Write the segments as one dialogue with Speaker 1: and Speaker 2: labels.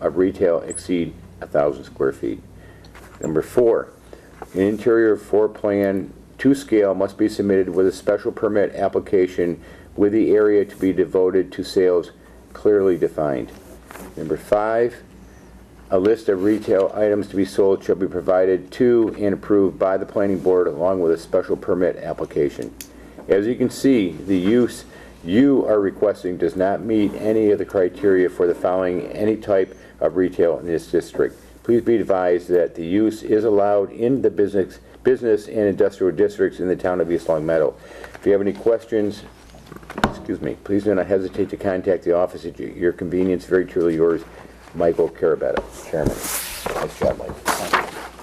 Speaker 1: of retail exceed 1,000 square feet. Number four, an interior floor plan to scale must be submitted with a special permit application with the area to be devoted to sales clearly defined. Number five, a list of retail items to be sold shall be provided to and approved by the planning board along with a special permit application. As you can see, the use you are requesting does not meet any of the criteria for the following any type of retail in this district. Please be advised that the use is allowed in the business, business and industrial districts in the town of East Long Meadow. If you have any questions, excuse me, please do not hesitate to contact the office at your- your convenience. Very truly yours, Michael Carabetta, Chairman. Nice job, Mike.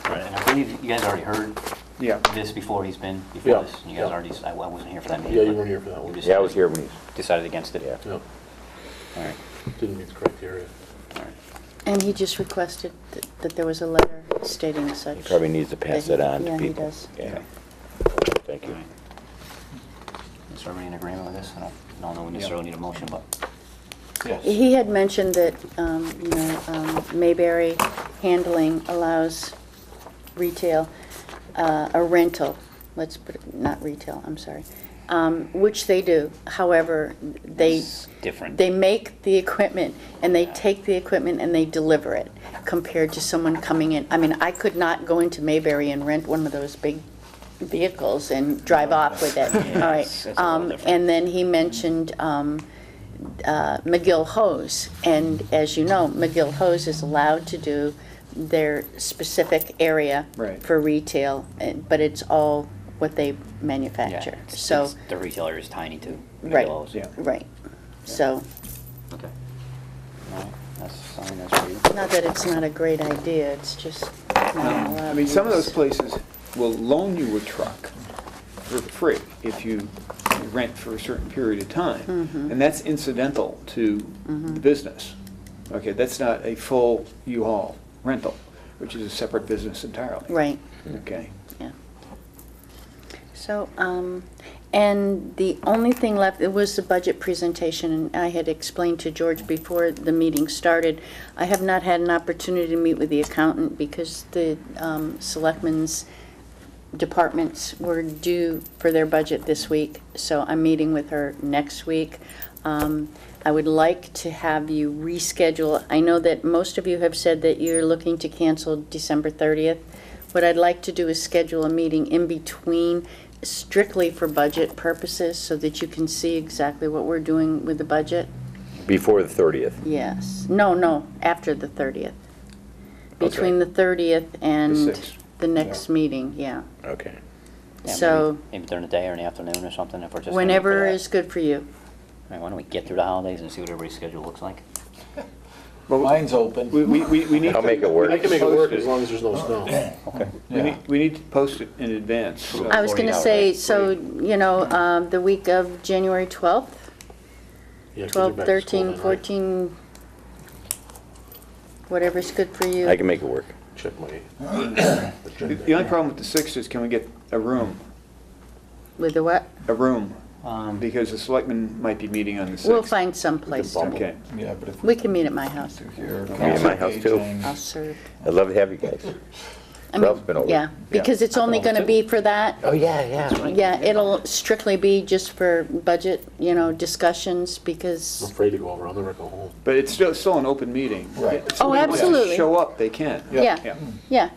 Speaker 2: Right, and I believe you guys already heard
Speaker 3: Yeah.
Speaker 2: this before he's been, before
Speaker 4: Yeah,
Speaker 2: this, and you guys
Speaker 4: yeah.
Speaker 2: already, I I wasn't here for that meeting.
Speaker 4: Yeah, you
Speaker 2: but
Speaker 4: weren't here for that
Speaker 2: we
Speaker 4: one.
Speaker 2: just
Speaker 1: Yeah, I was here when he,
Speaker 2: Decided against it.
Speaker 1: yeah.
Speaker 4: No,
Speaker 2: All right,
Speaker 4: didn't meet the criteria.
Speaker 2: all right.
Speaker 5: And he just requested that- that there was a letter stating such.
Speaker 1: He probably needs to pass
Speaker 5: that
Speaker 1: that
Speaker 5: he-
Speaker 1: on
Speaker 5: yeah,
Speaker 1: to
Speaker 5: he
Speaker 1: people.
Speaker 5: does.
Speaker 1: Yeah, thank
Speaker 2: All
Speaker 1: you.
Speaker 2: right. Is everybody in agreement with this? I don't, I don't know we necessarily need a motion, but,
Speaker 5: He had mentioned that, um, you know, um, Mayberry handling allows retail, uh, a rental, let's put, it not retail, I'm sorry, um, which they do. However, they.
Speaker 2: It's different.
Speaker 5: They make the equipment, and they take the equipment and they deliver it, compared to someone coming in. I mean, I could not go into Mayberry and rent one of those big vehicles and drive off with it. All
Speaker 2: it's-
Speaker 5: right.
Speaker 2: it's a little
Speaker 5: Um,
Speaker 2: different.
Speaker 5: And then he mentioned, um, uh, McGill Hose. And as you know, McGill Hose is allowed to do their specific area
Speaker 3: Right.
Speaker 5: for retail, and- but it's all what they
Speaker 2: yeah.
Speaker 5: manufacture.
Speaker 2: it's-
Speaker 5: So,
Speaker 2: it's- The retailer is tiny too.
Speaker 5: right,
Speaker 2: Bigelow's.
Speaker 3: Yeah.
Speaker 5: right. So,
Speaker 2: Okay. All right, that's, I mean, that's for you.
Speaker 5: not that it's not a great idea, it's just not allowed.
Speaker 3: I mean, some of those
Speaker 5: use.
Speaker 3: places will loan you a truck for free if you rent for a certain period of time.
Speaker 5: Mm-hmm.
Speaker 3: And that's incidental to the business. Okay, that's not a full U-Haul rental, which is a separate business entirely.
Speaker 5: Right,
Speaker 3: Okay.
Speaker 5: yeah. So, um, and the only thing left, it was the budget presentation, and I had explained to George before the meeting started, I have not had an opportunity to meet with the accountant because the um, selectmen's departments were due for their budget this week, so I'm meeting with her next week. Um, I would like to have you reschedule. I know that most of you have said that you're looking to cancel December 30th. What I'd like to do is schedule a meeting in between strictly for budget purposes so that you can see exactly what we're doing with the budget.
Speaker 1: Before the 30th.
Speaker 5: Yes. No, no, after the 30th. Between the 30th and
Speaker 3: sixth.
Speaker 5: the next meeting, yeah.
Speaker 1: Okay.
Speaker 2: Yeah,
Speaker 5: So-
Speaker 2: maybe- Maybe during the day or in the afternoon or something, if we're just. gonna meet for
Speaker 5: Whenever
Speaker 2: that.
Speaker 5: is good for you.
Speaker 2: All right, why don't we get through the holidays and see what everybody's schedule looks like?
Speaker 6: Mine's open.
Speaker 3: We, we, we we need.
Speaker 1: I'll
Speaker 3: to-
Speaker 1: make it work.
Speaker 3: we
Speaker 4: I
Speaker 3: need to
Speaker 4: can make it work
Speaker 3: post
Speaker 4: as long as there's no snow.
Speaker 3: We need, we need to post it in advance. so-
Speaker 5: I was going to
Speaker 2: 40
Speaker 5: say,
Speaker 2: hours.
Speaker 5: so, you know, um, the week of January 12th,
Speaker 4: Yeah, 'cause they're
Speaker 5: 12,
Speaker 4: back to school
Speaker 5: 13,
Speaker 4: then, right?
Speaker 5: 14, whatever's good for you.
Speaker 1: I can make it work.
Speaker 4: Check my
Speaker 3: The
Speaker 4: agenda.
Speaker 3: the only problem with the sixth is can we get a room,
Speaker 5: With the what?
Speaker 3: a room?
Speaker 2: Um,
Speaker 3: Because the selectmen might be meeting on the 6th.
Speaker 5: We'll find some place. to-
Speaker 3: Okay.
Speaker 6: Yeah, but if
Speaker 5: We
Speaker 6: we
Speaker 5: can meet at my house.
Speaker 6: do here.
Speaker 1: Be in my house, too.
Speaker 5: I'll serve.
Speaker 1: I'd love to have you guys.
Speaker 5: I mean,
Speaker 1: Ralph's been over.
Speaker 5: Yeah, because it's only going to be for that.
Speaker 1: Oh, yeah, yeah.
Speaker 5: Yeah, it'll strictly be just for budget, you know, discussions
Speaker 4: I'm
Speaker 5: because,
Speaker 4: afraid to go over, I'll never go home.
Speaker 3: But it's still, it's still an open meeting.
Speaker 6: Right.
Speaker 3: If somebody wants to
Speaker 5: Oh, absolutely.
Speaker 3: Show up, they can.
Speaker 6: Yeah.
Speaker 3: Yeah.
Speaker 5: yeah, yeah.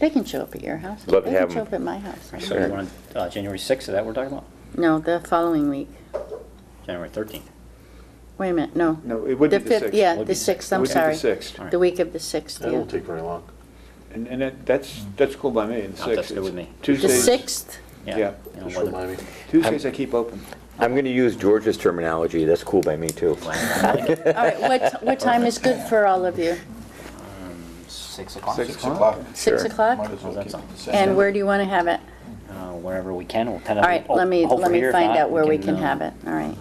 Speaker 5: They can show up at your house.
Speaker 1: Love to have
Speaker 5: They can
Speaker 1: 'em.
Speaker 5: show up at my house.
Speaker 2: So you want, uh, January sixth, is that what we're talking about?
Speaker 5: No, the following week.
Speaker 2: January thirteenth?
Speaker 5: Wait a minute, no.
Speaker 3: No, it would be the
Speaker 5: fifth-
Speaker 3: 6th.
Speaker 5: Yeah,
Speaker 2: Would
Speaker 5: the
Speaker 2: be-
Speaker 5: 6th,
Speaker 3: It
Speaker 5: I'm
Speaker 3: would be
Speaker 5: sorry.
Speaker 3: the 6th.
Speaker 5: The week of the 6th,
Speaker 4: That won't
Speaker 5: yeah.
Speaker 4: take very long.
Speaker 3: And, and that- that's, that's cool by me, the 6th.
Speaker 2: that's good with me. The
Speaker 5: The
Speaker 3: Tuesdays.
Speaker 5: 6th,
Speaker 3: Yeah.
Speaker 2: You know,
Speaker 4: Just
Speaker 2: whether-
Speaker 4: remind me.
Speaker 3: Tuesdays I keep open.
Speaker 1: I'm going to use George's terminology. That's cool by me, too.
Speaker 5: all right, what, what time is good for all of you?
Speaker 2: um, Six o'clock?
Speaker 3: Six
Speaker 6: Six o'clock.
Speaker 5: 6
Speaker 1: Sure.
Speaker 5: o'clock?
Speaker 6: Might as well keep it the same.
Speaker 5: And where do you want to have it?
Speaker 2: Uh, wherever we can, we'll tend
Speaker 5: All
Speaker 2: to.
Speaker 5: right, let me, let me find out where we can have
Speaker 2: uh,
Speaker 5: it, all right.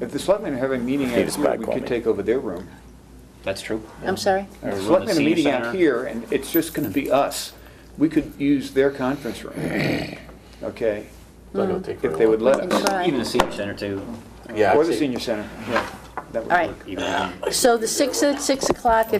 Speaker 3: If the selectmen are having a meeting
Speaker 1: Need a
Speaker 3: out here,
Speaker 1: spot,
Speaker 3: we
Speaker 1: call
Speaker 3: could
Speaker 1: me.
Speaker 3: take over their room.
Speaker 2: That's true.
Speaker 5: I'm sorry?
Speaker 2: Or
Speaker 3: The
Speaker 2: room
Speaker 3: selectmen
Speaker 2: at
Speaker 3: are
Speaker 2: senior
Speaker 3: meeting out
Speaker 2: center.
Speaker 3: here, and it's just going to be us. We could use their conference room, okay?
Speaker 4: Not gonna take very
Speaker 3: If they would
Speaker 4: long.
Speaker 3: let
Speaker 5: Can
Speaker 3: us.
Speaker 5: try.
Speaker 2: Even the senior center too.
Speaker 4: Yeah, I'd
Speaker 3: Or the
Speaker 4: say-
Speaker 3: senior center, yeah. That would
Speaker 5: All right,
Speaker 3: work.
Speaker 2: Even
Speaker 5: so the 6th at 6 o'clock,